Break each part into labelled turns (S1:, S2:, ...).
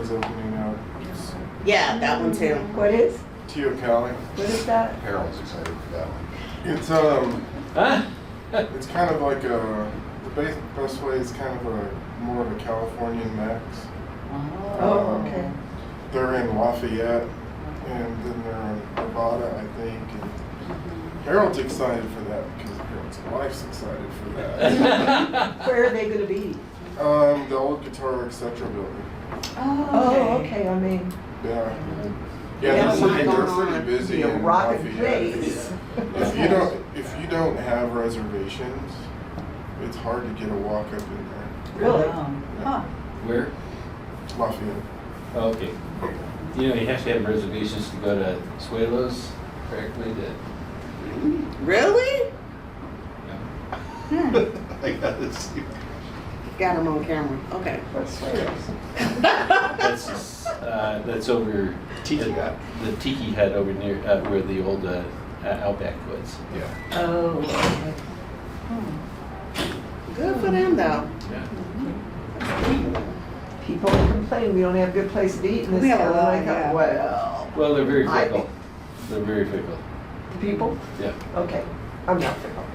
S1: is opening up. It's
S2: Yeah, that one too.
S3: What is,
S1: Teo County.
S3: what is that?
S4: Harold's excited for that one.
S1: It's um,
S5: Huh?
S1: it's kind of like a the base, best way is kind of a more of a Californian mix.
S3: Oh,
S1: Um,
S3: okay.
S1: They're in Lafayette, and then they're in Nevada, I think. And Harold's excited for that because Harold's wife's excited for that.
S3: Where are they gonna be?
S1: um, the old Guitar Etc. building.
S3: Oh, okay, I mean,
S1: Yeah.
S2: Yeah,
S1: Yeah,
S2: that's
S1: they're
S2: what
S1: pretty,
S2: I'm
S1: they're
S2: going
S1: pretty
S2: on.
S1: busy
S3: be a
S1: in
S3: rocking
S1: Lafayette.
S3: place.
S1: If you don't, if you don't have reservations, it's hard to get a walk up in there.
S3: Really?
S6: Um,
S1: Huh.
S5: Where?
S1: Lafayette.
S5: Oh, okay. You know, you have to have reservations to go to Suelos correctly to,
S2: Really?
S5: you know.
S4: I gotta see.
S2: Got him on camera. Okay.
S3: What's yours?
S5: That's, uh, that's over.
S4: Tiki
S5: the-
S4: hut.
S5: The tiki hut over near, uh, where the old, uh, Outback was.
S4: Yeah.
S3: Oh.
S2: Good for them though.
S5: Yeah.
S3: People complain we don't have good place to eat in
S2: We
S3: this
S2: have a
S3: town.
S2: lot,
S3: I
S2: yeah.
S3: thought, well,
S5: Well, they're very
S3: I
S5: fickle. They're very fickle.
S3: the people,
S5: Yeah.
S3: okay, I'm not fickle.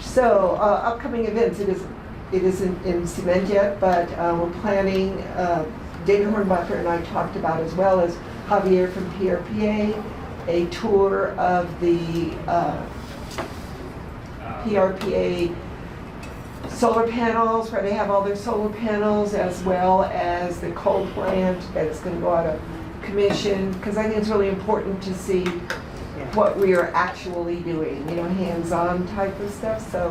S3: So, uh, upcoming events, it isn't, it isn't in cement yet, but, uh, we're planning, uh, David Hornbuckler and I talked about as well as Javier from PRPA, a tour of the, uh, PRPA solar panels, where they have all their solar panels, as well as the coal plant that's gonna go out of commission, because I think it's really important to see what we are actually doing, you know, hands-on type of stuff, so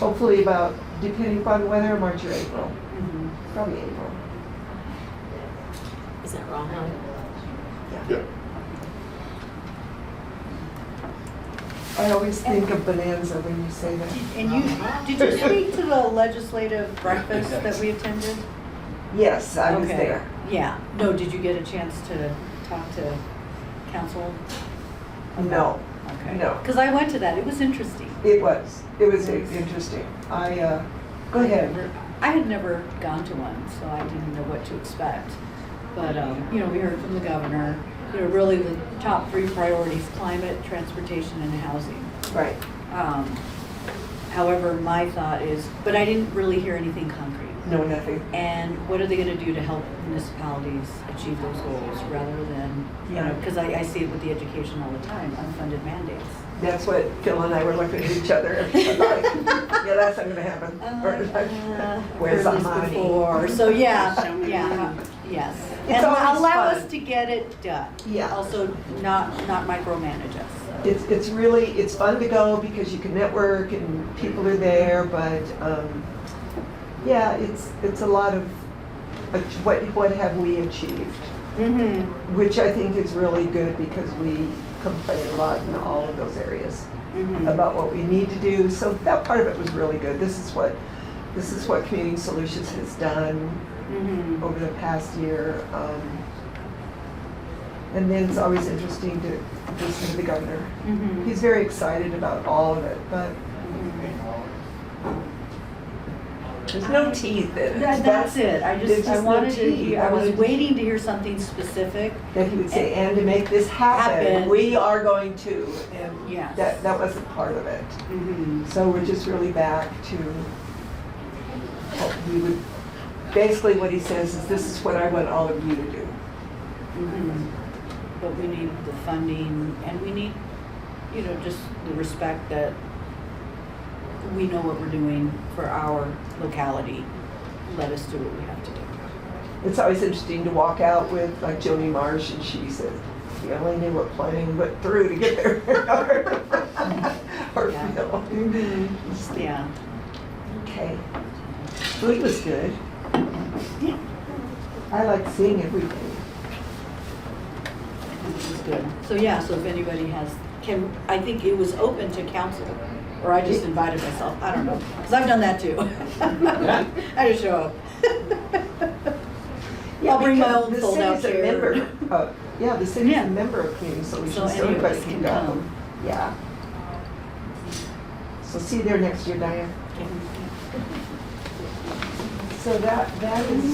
S3: hopefully about, depending upon weather, March or April,
S6: Mm-hmm.
S3: probably April.
S7: Is that wrong?
S1: Yeah.
S3: I always think of Bonanza when you say that.
S6: And you, did you speak to the legislative breakfast that we attended?
S3: Yes, I was
S6: Okay.
S3: there.
S6: Yeah, no, did you get a chance to talk to council?
S3: No,
S6: Okay.
S3: No.
S6: Because I went to that, it was interesting.
S3: it was, it was interesting. I, uh, go ahead.
S6: I had never gone to one, so I didn't know what to expect. But, um, you know, we heard from the governor, you know, really the top three priorities, climate, transportation, and housing.
S3: Right.
S6: Um, However, my thought is, but I didn't really hear anything concrete.
S3: No, nothing.
S6: And what are they gonna do to help municipalities achieve those goals rather than, you know,
S3: Yeah.
S6: because I, I see it with the education all the time, unfunded mandates.
S3: That's what Phil and I were looking at each other. like, Yeah, that's not gonna happen. Or,
S6: Uh, uh,
S3: Where's
S6: heard
S3: the
S6: this
S3: money?
S6: before. So,
S2: Show
S6: yeah,
S2: me
S6: yeah,
S2: money.
S6: yes.
S3: It's
S6: And
S3: always
S6: allow
S3: fun.
S6: us to get it done.
S3: Yeah.
S6: Also, not, not micromanage us.
S3: It's, it's really, it's fun to go because you can network and people are there, but, um, yeah, it's, it's a lot of, uh, what, what have we achieved?
S2: Mm-hmm.
S3: Which I think is really good because we complain a lot in all of those areas
S2: mm-hmm.
S3: about what we need to do. So that part of it was really good. This is what, this is what Community Solutions has done.
S6: Mm-hmm.
S3: over the past year. um, And then it's always interesting to listen to the governor.
S6: Mm-hmm.
S3: He's very excited about all of it, but there's no teeth in it.
S6: That, that's it. I
S3: There's
S6: just, I
S3: just no
S6: wanted to,
S3: tea.
S6: hear-
S3: I
S6: I was
S3: wanted to-
S6: waiting to hear something specific.
S3: That he would say, and to make this happen,
S6: Happen.
S3: we are going to. And
S6: Yes.
S3: that, that wasn't part of it.
S6: Mm-hmm.
S3: So we're just really back to, what we would, basically what he says is, this is what I want all of you to do.
S6: Mhm. But we need the funding and we need, you know, just the respect that we know what we're doing for our locality. Let us do what we have to do.
S3: It's always interesting to walk out with like Joni Marsh and she says, we only knew what planning went through to get there. Or
S6: Yeah.
S3: Phil.
S6: Yeah.
S3: Okay. Food was good.
S6: Yeah.
S3: I like seeing everything.
S6: This is good. So yeah, so if anybody has, can, I think it was open to council, or I just invited myself, I don't know, because I've done that too. I just show up. I'll bring my
S3: because
S6: own
S3: the
S6: fold-out
S3: city's a
S6: chair.
S3: member of- Oh, Yeah, the city's
S6: Yeah.
S3: a member of Community
S6: So
S3: Solutions, so
S6: any of
S3: everybody
S6: us
S3: can
S6: can
S3: go.
S6: come.
S3: Yeah. So see you there next year, Diane. So that, that is